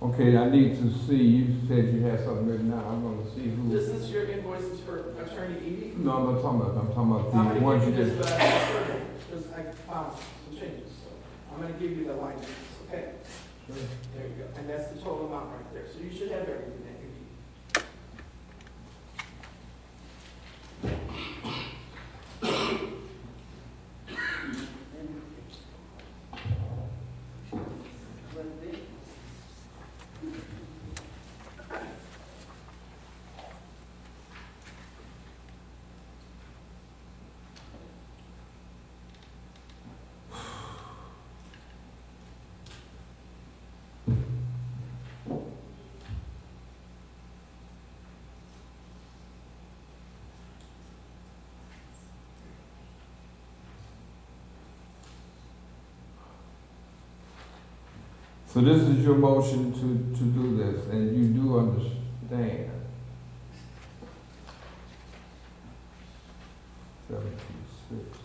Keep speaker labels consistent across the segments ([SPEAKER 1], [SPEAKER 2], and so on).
[SPEAKER 1] Okay, I need to see, you said you had something written down, I'm gonna see who.
[SPEAKER 2] This is your invoices for attorney Eby.
[SPEAKER 1] No, I'm not talking about, I'm talking
[SPEAKER 2] I'm
[SPEAKER 1] about the
[SPEAKER 2] gonna
[SPEAKER 1] ones you
[SPEAKER 2] give you this,
[SPEAKER 1] just,
[SPEAKER 2] but because I found some changes, so I'm gonna give you the line numbers, okay? There you go, and that's the total amount right there, so you should have everything that you need.
[SPEAKER 1] so this is your motion to, to do this, and you do understand. Seventy-six.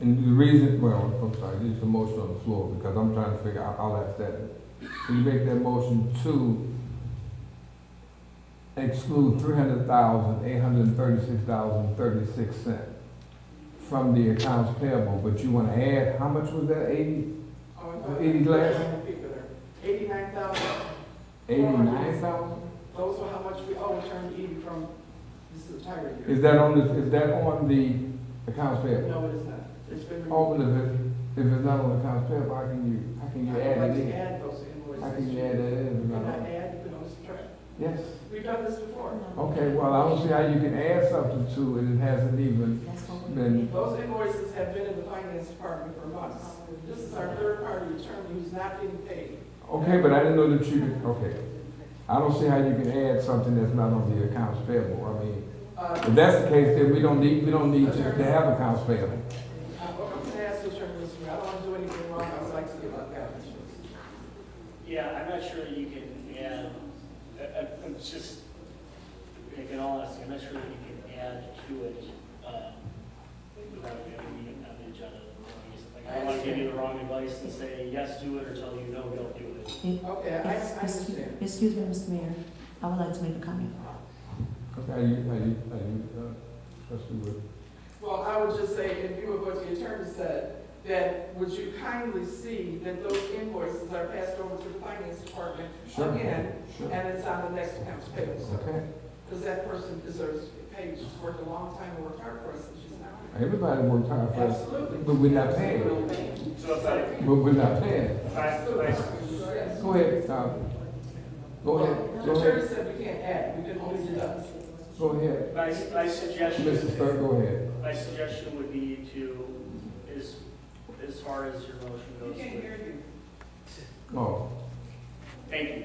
[SPEAKER 1] And the reason, well, I'm sorry, this is a motion on the floor, because I'm trying to figure out, I'll ask that. So you make that motion to exclude three hundred thousand, eight hundred and thirty-six thousand, thirty-six cent from the accounts payable, but you wanna add, how much was that, eighty,
[SPEAKER 2] Oh, and the-
[SPEAKER 1] Eighty glass?
[SPEAKER 2] Eighty-nine thousand,
[SPEAKER 1] eighty-nine thousand?
[SPEAKER 2] those are how much we owe attorney Eby from, this is the entire year.
[SPEAKER 1] Is that on the, is that on the accounts payable?
[SPEAKER 2] No, it is not, it's been. removed.
[SPEAKER 1] Oh, but if it, if it's not on the accounts payable, how can you, how can you
[SPEAKER 2] I'd like
[SPEAKER 1] add it
[SPEAKER 2] to
[SPEAKER 1] in?
[SPEAKER 2] add those invoices.
[SPEAKER 1] How can you add that in? if it's
[SPEAKER 2] You
[SPEAKER 1] not
[SPEAKER 2] can
[SPEAKER 1] on?
[SPEAKER 2] add, you can always subtract.
[SPEAKER 1] Yes,
[SPEAKER 2] We've done this before.
[SPEAKER 1] okay, well, I don't see how you can add something to it, it hasn't even been
[SPEAKER 2] Those invoices have been in the finance department for months. This is our third party attorney who's not getting paid.
[SPEAKER 1] Okay, but I didn't know that you could, okay. I don't see how you can add something that's not on the accounts payable. I mean,
[SPEAKER 2] Uh,
[SPEAKER 1] if that's the case, then we don't need, we don't need to, to have accounts payable.
[SPEAKER 2] Uh, I'm going to ask the attorney this week, I don't want to do anything wrong, I would like to give up that.
[SPEAKER 3] Yeah, I'm not sure you can add, I- I- I'm just, in all honesty, I'm not sure you can add to it um, without having it on the agenda. Like, I don't want to give you the wrong advice and say, yes, do it, or tell you, no, don't do it.
[SPEAKER 2] Okay, I I understand.
[SPEAKER 4] Excuse me, Mr. Mayor, I would like to make a comment.
[SPEAKER 1] Okay, are you, are you, are you, uh, trustee Wood?
[SPEAKER 2] Well, I would just say, in view of what the attorney said, that would you kindly see that those invoices are passed over to the finance department
[SPEAKER 1] Sure.
[SPEAKER 2] again,
[SPEAKER 1] Sure.
[SPEAKER 2] and it's on the next account's payable, so.
[SPEAKER 1] Okay,
[SPEAKER 2] Because that person deserves to be paid, she's worked a long time and worked hard for us, and she's not.
[SPEAKER 1] everybody worked hard for us,
[SPEAKER 2] Absolutely.
[SPEAKER 1] but we're not paying.
[SPEAKER 3] So if I,
[SPEAKER 1] But we're not paying.
[SPEAKER 3] if I, if I-
[SPEAKER 2] Yes.
[SPEAKER 1] Go ahead, uh, go ahead,
[SPEAKER 2] The
[SPEAKER 1] go ahead,
[SPEAKER 2] attorney said we can't add, we can only deduct.
[SPEAKER 1] go ahead.
[SPEAKER 3] my, my suggestion.
[SPEAKER 1] Mrs. Burke, go ahead.
[SPEAKER 3] My suggestion would be to, as, as far as your motion goes.
[SPEAKER 2] you.
[SPEAKER 1] Oh,
[SPEAKER 3] Thank you.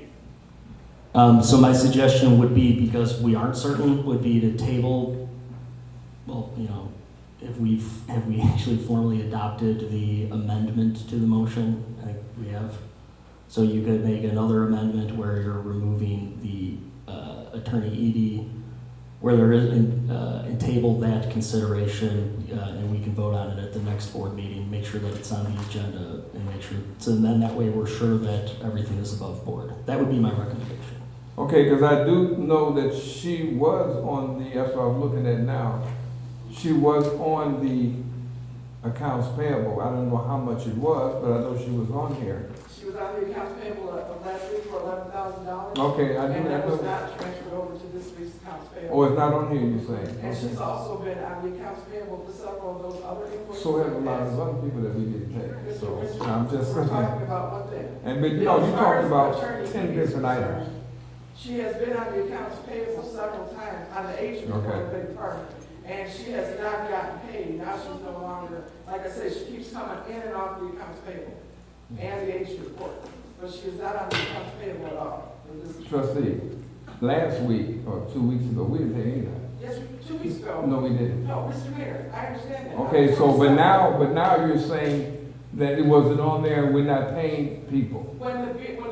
[SPEAKER 5] Um, so my suggestion would be, because we aren't certain, would be to table, well, you know, if we've, have we actually formally adopted the amendment to the motion? I think we have. So you could make another amendment where you're removing the, uh, attorney Edie, where there is, and, uh, and table that consideration, uh, and we can vote on it at the next board meeting, make sure that it's on the agenda, and make sure, so then that way we're sure that everything is above board. That would be my recommendation.
[SPEAKER 1] Okay, because I do know that she was on the, that's what I'm looking at now, she was on the accounts payable. I don't know how much it was, but I know she was on here.
[SPEAKER 2] She was on the accounts payable of of last week for eleven thousand dollars.
[SPEAKER 1] Okay, I
[SPEAKER 2] And
[SPEAKER 1] do, I
[SPEAKER 2] that was
[SPEAKER 1] know.
[SPEAKER 2] not transferred over to this week's accounts payable.
[SPEAKER 1] Oh, it's not on here, you
[SPEAKER 2] And
[SPEAKER 1] saying?
[SPEAKER 2] she's
[SPEAKER 1] Okay.
[SPEAKER 2] also been on the accounts payable for several of those other invoices.
[SPEAKER 1] So we have a lot of other people that we didn't pay,
[SPEAKER 2] Mr.
[SPEAKER 1] so
[SPEAKER 2] Richards,
[SPEAKER 1] I'm just,
[SPEAKER 2] We're talking about one thing.
[SPEAKER 1] and, but, you know, you
[SPEAKER 2] As far
[SPEAKER 1] talked
[SPEAKER 2] as
[SPEAKER 1] about
[SPEAKER 2] attorney
[SPEAKER 1] ten
[SPEAKER 2] fees
[SPEAKER 1] different
[SPEAKER 2] are
[SPEAKER 1] items.
[SPEAKER 2] concerned, She has been on the accounts payable several times, on the agent report, big part, and she has not gotten paid, now she's no longer, like I said, she keeps coming in and off the accounts payable and the agent report, but she is not on the accounts payable at all. It was-
[SPEAKER 1] Trustee, last week, or two weeks ago, we didn't pay anything.
[SPEAKER 2] Yes, two weeks ago,
[SPEAKER 1] No, we didn't.
[SPEAKER 2] no, Mr. Mayor, I understand that.
[SPEAKER 1] Okay, so, but now, but now you're saying that it wasn't on there, and we're not paying people.
[SPEAKER 2] When the, bid- when